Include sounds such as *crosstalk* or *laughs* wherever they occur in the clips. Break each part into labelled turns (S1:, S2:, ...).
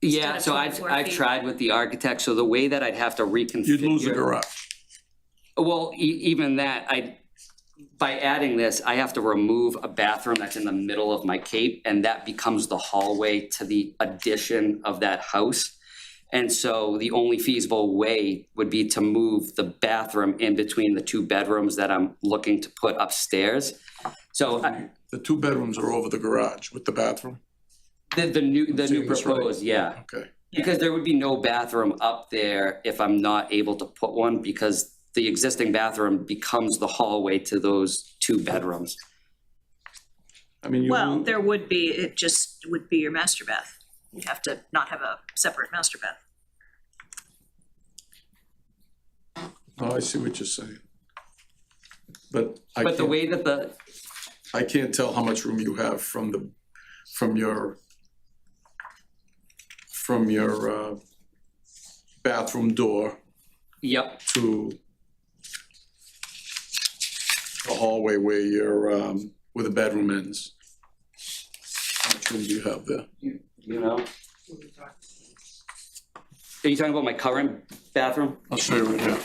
S1: Yeah,
S2: of
S1: so I've,
S2: 24
S1: I've
S2: feet.
S1: tried with the architect, so the way that I'd have to reconfigure.
S3: You'd lose the garage.
S1: Well, e- even that, I, by adding this, I have to remove a bathroom that's in the middle of my cape, and that becomes the hallway to the addition of that house. And so the only feasible way would be to move the bathroom in between the two bedrooms that I'm looking to put upstairs. So I-
S3: The two bedrooms are over the garage with the bathroom,
S1: the, the new, the new
S3: Seeing this right.
S1: proposed, yeah.
S3: okay.
S1: Because there would be no bathroom up there if I'm not able to put one, because the existing bathroom becomes the hallway to those two bedrooms.
S3: I mean, you,
S2: Well,
S3: lose-
S2: there would be, it just would be your master bath. You'd have to not have a separate master bath.
S3: oh, I see what you're saying. But I
S1: But the
S3: can't,
S1: way that the,
S3: I can't tell how much room you have from the, from your, from your, uh, bathroom door
S1: yep,
S3: to the hallway where your, um, where the bedroom ends. How much room do you have there?
S1: you know. Are you talking about my current bathroom?
S3: I'll show you right now.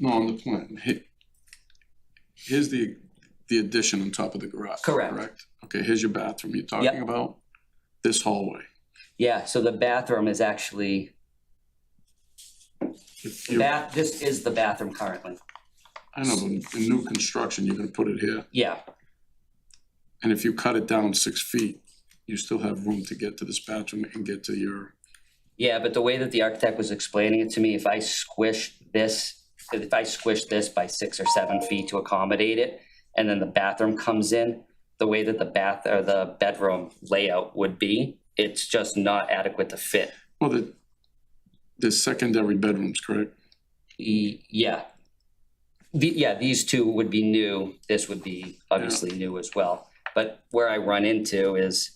S3: No, on the plan. He- Here's the, the addition on top of the garage.
S1: Correct.
S3: Okay, here's your bathroom. You're talking
S1: Yep.
S3: about this hallway.
S1: Yeah, so the bathroom is actually,
S3: If you- I
S1: bath, this is the bathroom currently.
S3: know, in in new construction, you're gonna put it here.
S1: Yeah,
S3: And if you cut it down six feet, you still have room to get to this bathroom and get to your,
S1: yeah, but the way that the architect was explaining it to me, if I squish this, if I squish this by six or seven feet to accommodate it, and then the bathroom comes in, the way that the bath, or the bedroom layout would be, it's just not adequate to fit.
S3: well, the, there's secondary bedrooms, correct?
S1: E- yeah. The, yeah, these two would be new, this would be obviously new as well. But where I run into is,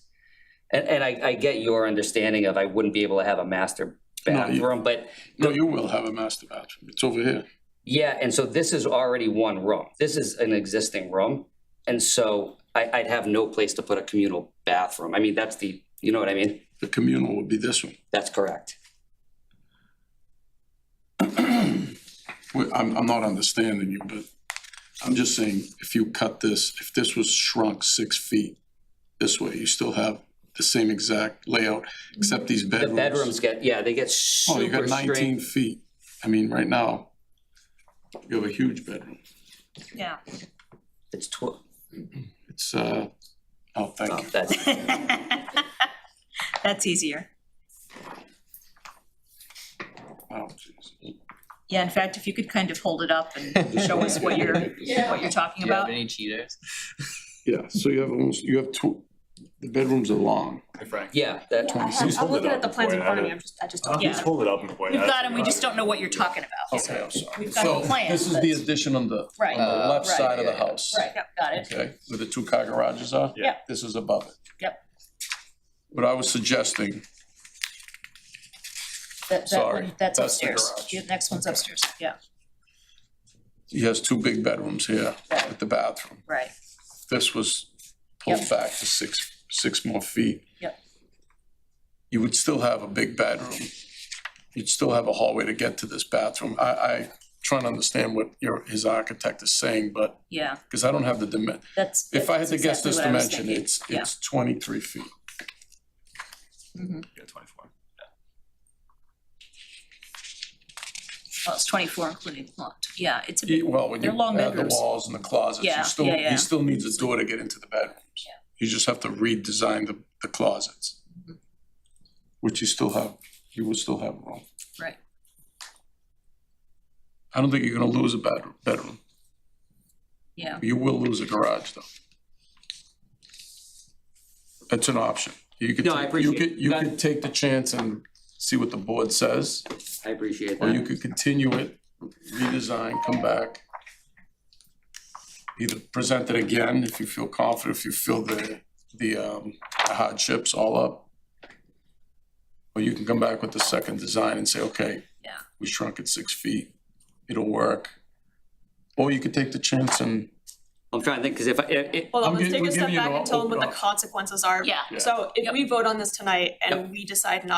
S1: and, and I, I get your understanding of I wouldn't be able to have a master
S3: No, you-
S1: bathroom, but
S3: No, you will have a master bathroom. It's over here.
S1: yeah, and so this is already one room. This is an existing room. And so I, I'd have no place to put a communal bathroom. I mean, that's the, you know what I mean?
S3: The communal would be this one.
S1: That's correct.
S3: Well, I'm, I'm not understanding you, but I'm just saying, if you cut this, if this was shrunk six feet this way, you still have the same exact layout, except these
S1: The
S3: bedrooms.
S1: bedrooms get, yeah, they get
S3: Oh, you
S1: super
S3: got
S1: strange.
S3: nineteen feet. I mean, right now, you have a huge bedroom.
S2: Yeah.
S1: It's tw-
S3: It's, uh, oh, thank
S1: oh,
S3: you.
S1: that's,
S2: That's easier.
S3: Oh, jeez.
S2: Yeah, in fact, if you could kind of hold it up and show us what you're, what you're talking
S4: Do you have
S2: about.
S4: any cheaters?
S3: Yeah, so you have almost, you have two, the bedrooms are long.
S4: Frank.
S1: yeah,
S3: *laughs*
S1: that,
S5: Yeah, I have-
S3: Please
S5: I'm
S3: hold it
S5: looking
S3: up
S5: at the plans in front of me, I'm just, I just don't.
S2: Yeah.
S5: hold it up and point
S2: We've got them, we just don't know what you're talking about.
S3: Okay, I'm sorry.
S2: We've got the plan,
S3: This is
S2: but-
S3: the addition on the, on
S2: Right.
S3: the left
S2: Right.
S3: side of the house.
S2: Right, yep, got it.
S3: Okay, where the two car garages are?
S5: Yeah.
S3: This is above it.
S2: Yep.
S3: What I was suggesting,
S2: That, that
S3: Sorry,
S2: one, that's
S3: that's the
S2: upstairs.
S3: garage.
S2: The next one's upstairs, yeah,
S3: he has two big bedrooms here with the bathroom.
S2: right.
S3: This was pulled
S2: Yep.
S3: back to six, six more feet.
S2: Yep.
S3: You would still have a big bedroom. You'd still have a hallway to get to this bathroom. I, I trying to understand what your, his architect is saying, but,
S2: Yeah,
S3: because I don't have the dimen,
S2: that's.
S3: if I had to
S2: that's
S3: guess this
S2: exactly what I was
S3: dimension,
S2: thinking.
S3: it's,
S2: Yeah.
S3: it's twenty-three feet.
S2: Mhm.
S4: Yeah, twenty-four.
S2: Mm-hmm. Well, it's twenty-four including the lot. Yeah, it's a
S3: Yeah,
S2: big,
S3: Well, when you
S2: They're long
S3: add the
S2: bedrooms.
S3: walls and the closets,
S2: Yeah,
S3: you still,
S2: yeah, yeah.
S3: he still needs a door to get into the bedrooms.
S2: Yeah.
S3: You just have to redesign the, the closets. Which you still have, you will still have room.
S2: right.
S3: I don't think you're gonna lose a bedroom, bedroom.
S2: Yeah,
S3: You will lose a garage though. It's an option. You could,
S1: No, I
S3: take- you
S1: appreciate
S3: could, you
S1: that.
S3: could take the chance and see what the board says,
S1: I appreciate
S3: or you
S1: that.
S3: could continue it, redesign, come back. Either present it again if you feel confident, if you feel the, the um, hardships all up. Or you can come back with the second design and say, okay,
S2: Yeah.
S3: we shrunk it six feet, it'll work. Or you could take the chance and,
S1: I'm trying to think, because if I, if, if-
S5: Hold
S3: I'm
S5: on, let's
S3: gi-
S5: take
S3: we're
S5: a step
S3: giving you
S5: back
S3: an
S5: and tell them
S3: open
S5: what the
S3: op-
S5: consequences are.
S2: yeah.
S3: Yeah.
S5: So if we vote on this tonight and we decide not